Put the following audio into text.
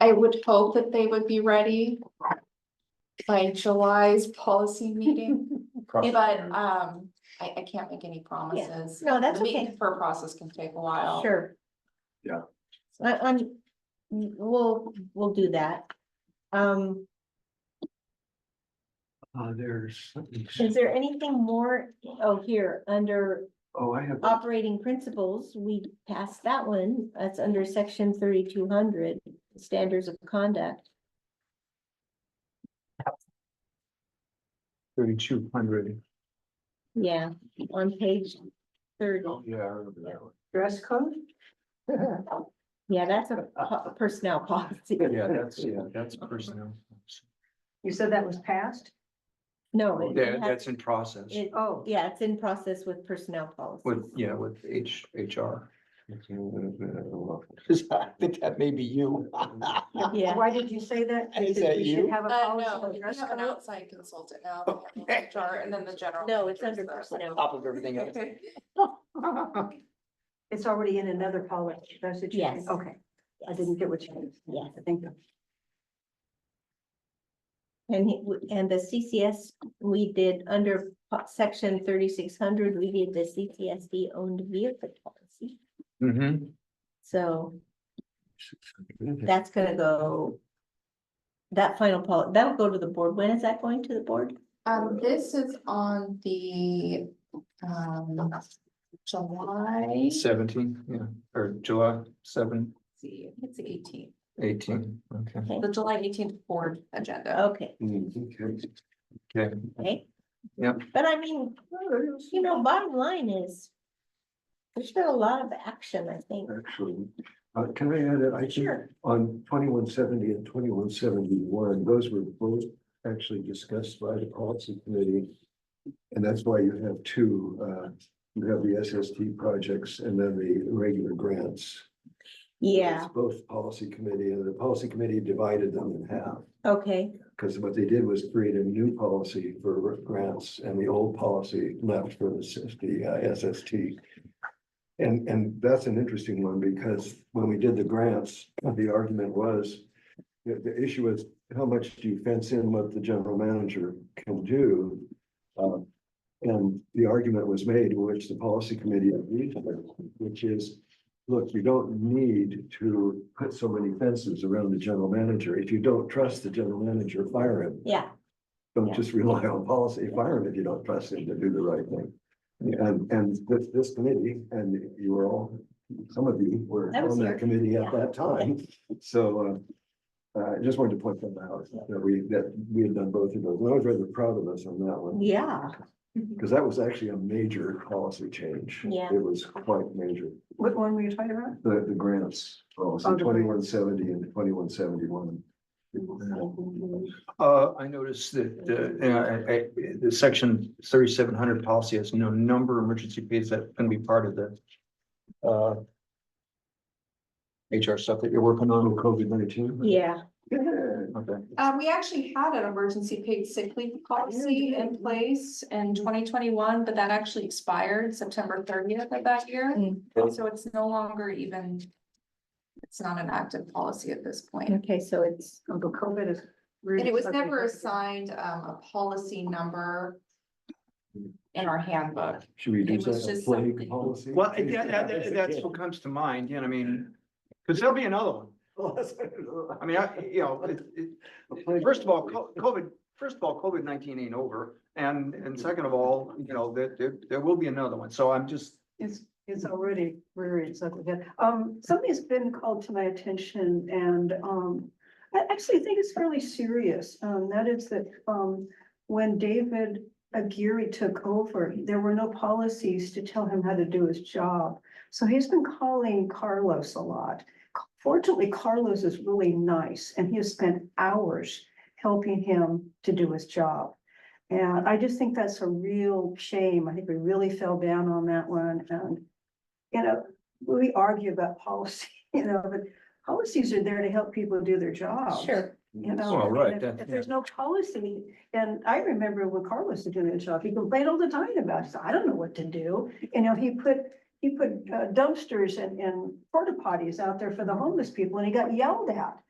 I would hope that they would be ready. By July's policy meeting, Cross- but um, I I can't make any promises. No, that's The meeting okay. For process can take a while. Sure. Yeah. I, I'm, we'll, we'll do that. Um, Uh, there's, is there anything more? Oh, here, under oh, I have, operating principles, we passed that one. That's under section thirty-two hundred, standards of conduct. thirty-two hundred. Yeah, on page thirty. Yeah, I remember that one. Dress code? Yeah, that's a po- personnel policy. Yeah, that's, yeah, that's personnel. You said that was passed? No. it- it That, has- that's in process it- Oh, Yeah, Oh, it's in process with personnel policy. with, yeah, with H, HR. I think that may be you. Yeah. why did you say that? Is Because that we you? should have a Uh, policy no, on we dress have an code. outside consultant now. they Okay. have HR And then the general. No, it's manager under is the- personnel. Top of everything else. It's already in another policy, that's what you Yes. mean, okay, I didn't get what you meant. Yes. I think, And, he- w- and the CCS, we did under po- section thirty-six hundred, we did the CCSD owned vehicle policy. Mm-hmm. So that's gonna go. That final pol, that'll go to the board. When is that going to the board? Um, this is on the um July. Seventeen, yeah, or July seven, let's see, I think It's the eighteenth, eighteen, okay. the July eighteenth board agenda. Okay, Mm-hmm. Okay, okay. Yep. But I mean, you know, bottom line is. There's been a lot of action, I think. Actually, uh, can I add, it? I think Sure. on twenty-one seventy and twenty-one seventy-one, those were both actually discussed by the policy committee. And that's why you have two, uh, you have the SST projects and then the regular grants. Yeah, It's Both policy committee and the policy committee divided them in half. okay, Because what they did was create a new policy for grants and the old policy left for the SIS the uh, SST. And, and that's an interesting one because when we did the grants, the argument was, the, the issue is how much do you fence in what the general manager can do? Um, And the argument was made, which the policy committee agreed with, which is, look, you don't need to put so many fences around the general manager. If you don't trust the general manager, fire him. yeah, Yeah. Don't just rely on policy, fire him if you don't trust him to do the right thing. And, and this, this committee, and you were all, some of you were I was on here. that committee at Yeah. that time, so. uh, Uh, I just wanted to point that out, that we, that we had done both of those, and I was rather proud of us on that one. yeah, Because that was actually a major policy change. Yeah. It was quite major. what one were you talking about? The, the grants, Oh, policy the- twenty-one seventy and twenty-one seventy-one. uh, I noticed that the, uh, I- I- the section thirty-seven hundred policy has no number of emergency pays that can be part of the. Uh. HR stuff that you're working on. COVID nineteen? yeah, Okay, Uh, we actually had an emergency paid sick leave Oh, policy in place in Mm. twenty twenty-one, but that actually expired September thirtieth of that year. Mm. So it's no longer even, it's not an active policy at this point. okay, so it's, Oh, but COVID is. And it was never assigned, um, a policy number in our handbook. Uh, Should we do It was that, a just plague something. policy? well, I- that- that- that- that's what comes to mind, you know, I mean, because there'll be another one. I mean, I, you know, it, it, First of all, co- COVID, first of all, COVID nineteen ain't over, and, and second of all, you know, there, there, there will be another one, so I'm just. It's, it's already rearing its ugly head. Um, something's been called to my attention and, um, I actually think it's fairly serious. Um, that is that, um, when David Aguirre took over, there were no policies to tell him how to do his job. So he's been calling Carlos a lot. Fortunately, Carlos is really nice and he has spent hours helping him to do his job. And I just think that's a real shame. I think we really fell down on that one and, you know, we argue about policy, you know, but policies are there to help people do their job. sure, You know, Well, right, and if- that- If there's no policy, and I remember when Carlos was doing his job, he complained all the time about, it. I don't know what to do. You know, he put, he put uh, dumpsters and, and porta potties out there for the homeless people and he got yelled at.